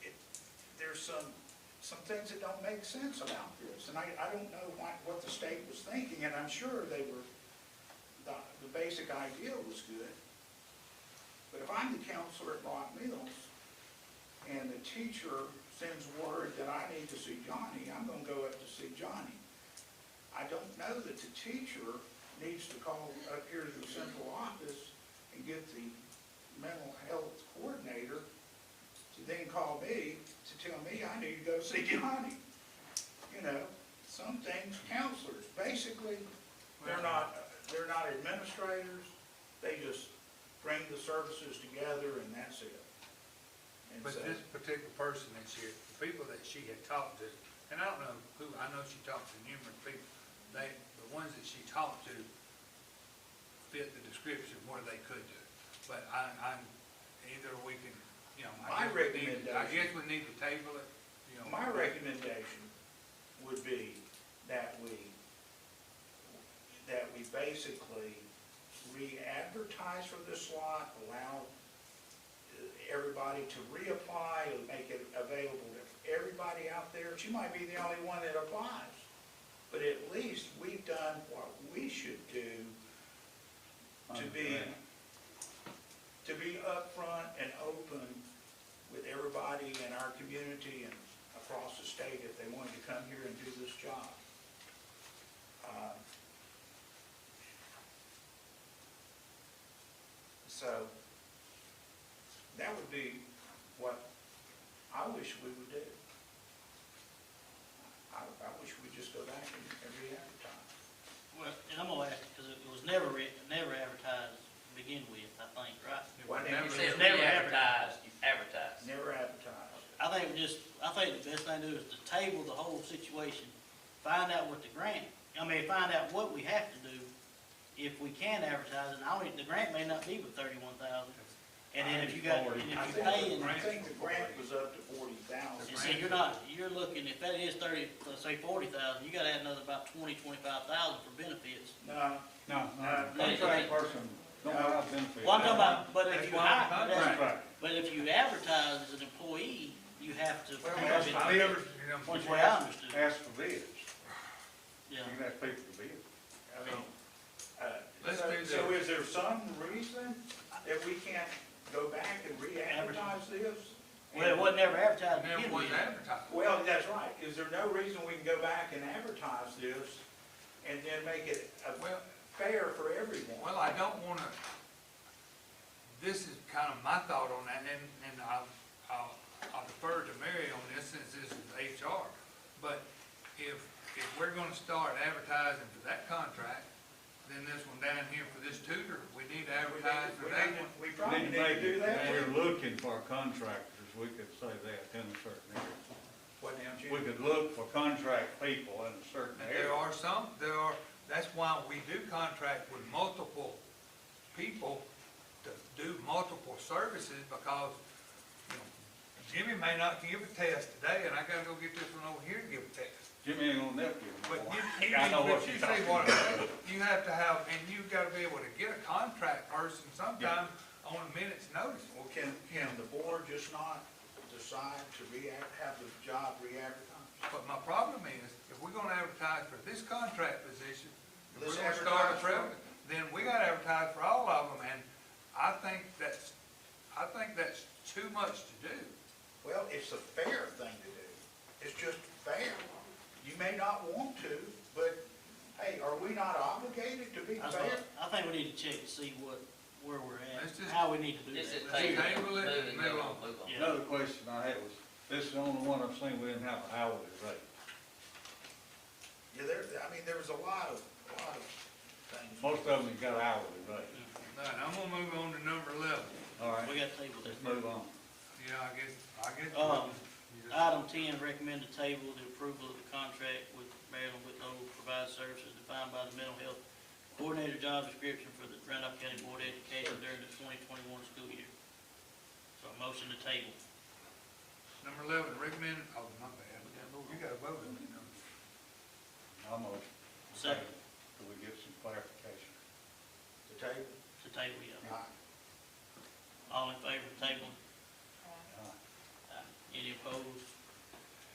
some, some things that don't make sense about this. And I, I don't know what, what the state was thinking, and I'm sure they were, the, the basic idea was good. But if I'm the counselor at Rock Mills, and the teacher sends word that I need to see Johnny, I'm gonna go up to see Johnny. I don't know that the teacher needs to call up here to the central office and get the mental health coordinator to then call me to tell me I need to go see Johnny. You know, some things counselors, basically, they're not, they're not administrators, they just bring the services together and that's it. And But so- this particular person that she, the people that she had talked to, and I don't know who, I know she talked to numerous people, they, the ones that she talked to fit the description of what they could do. But I, I'm, either we can, you know. My I guess we need- I recommendation- guess we need to table it, you know. My recommendation would be that we, that we basically re-advertise for this slot, allow uh, everybody to reapply, and make it available to everybody out there. She might be the only one that applies, but at least we've done what we should do to be, to be upfront and open with everybody in our community and across the state if they wanted to come here and do this job. Uh, So, that would be what I wish we would do. I, I wish we'd just go back and and re-advertise. Well, and I'm gonna ask, because it was never written, never advertised to begin with, I think, right? It Why would didn't you never- You said never we advertised, you advertised. Never advertise. I think we just, I think the best thing to do is to table the whole situation, find out what the grant, I mean, find out what we have to do if we can advertise, and I don't, the grant may not be but thirty-one thousand. And then if you got, and if I you think, pay, and, I think the grant was up to forty thousand. and see, you're not, you're looking, if that is thirty, let's say forty thousand, you gotta add another about twenty, twenty-five thousand for benefits. No, No, Uh, no, contract person, Uh, don't have benefits. Well, I'm talking about, but if That's you why I'm hire, contract. that's- Right. But if you advertise as an employee, you have to. Well, Because that's it fine. never, you know, Which way I understood, Ask for bids, yeah. you can ask people for bids. I mean, uh, Let's so- do so this. is there some reason that we can't go back and re-advertise this? Well, it wasn't ever advertised it to never begin was with. advertised. Well, that's right. Is there no reason we can go back and advertise this and then make it uh, Well, fair for everyone? Well, I don't wanna, this is kind of my thought on that, and, and I'll, I'll I'll defer to Mary on this since this is HR. But if, if we're gonna start advertising for that contract, then this one down here for this tutor, we need to We advertise need- for we that need- one. We probably need to do that. We're looking for contractors, we could say that in a certain area. What now, Jim? We could look for contract people in a certain And there area. are some, there are, that's why we do contract with multiple people to do multiple services, because, you know, Jimmy may not give a test today, and I gotta go get this one over here and give a test. Jimmy ain't gonna help you. But no more. you, you, Oh, I know but what you you're say talking what, about. you have to have, and you gotta be able to get a contract person sometime on a minute's notice. Well, can, can the board just not decide to re-act, have the job re-advertised? But my problem is, if we're gonna advertise for this contract position, if we're Let's gonna advertise start a for it. travel, then we gotta advertise for all of them, and I think that's, I think that's too much to do. Well, it's a fair thing to do. It's just fair. You may not want to, but hey, are we not obligated to be I thought- fair? I think we need to check to see what, where we're Let's at, just- how we need to do This is that. Let's table, table it move and move it, move on. on, move on. Yeah. Another question I had was, this is the only one I've seen we didn't have an hourly rate. Yeah, there, I mean, there was a lot of, a lot of things. Most of them have got hourly rate, Now, and I'm gonna move on to number eleven, all right, We got table let's that. move on. yeah, I guess, I guess. Um, you just- Item ten, recommend to table the approval of the contract with Maryland Whitlow Provide Services defined by the mental health coordinator job description for the Randolph County Board of Education during the twenty twenty-one school year. So a motion to table. Number eleven, recommend oh, Uh-huh.